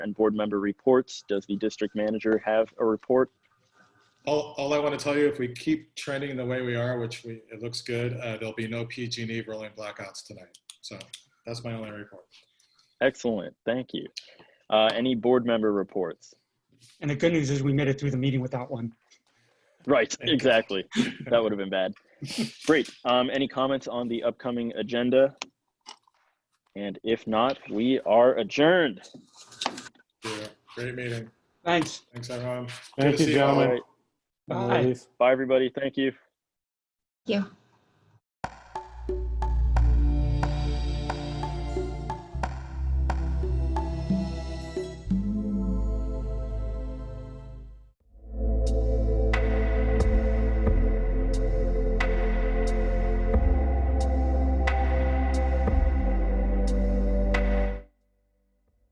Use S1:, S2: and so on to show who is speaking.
S1: and board member reports. Does the district manager have a report?
S2: All, all I want to tell you, if we keep trending the way we are, which we, it looks good, uh, there'll be no PG&E E rolling blackouts tonight. So that's my only report.
S1: Excellent, thank you. Uh, Any board member reports?
S3: And the good news is we made it through the meeting without one.
S1: Right,
S2: you.
S1: exactly. That would have been bad. Great. Um, Any comments on the upcoming agenda? And if not, we are adjourned.
S2: Yeah, Great meeting.
S3: Thanks.
S2: Thanks, everyone. Good
S4: Thank
S2: to
S4: you,
S2: see all.
S4: gentlemen.
S1: Bye, everybody. Thank you.
S5: Thank you.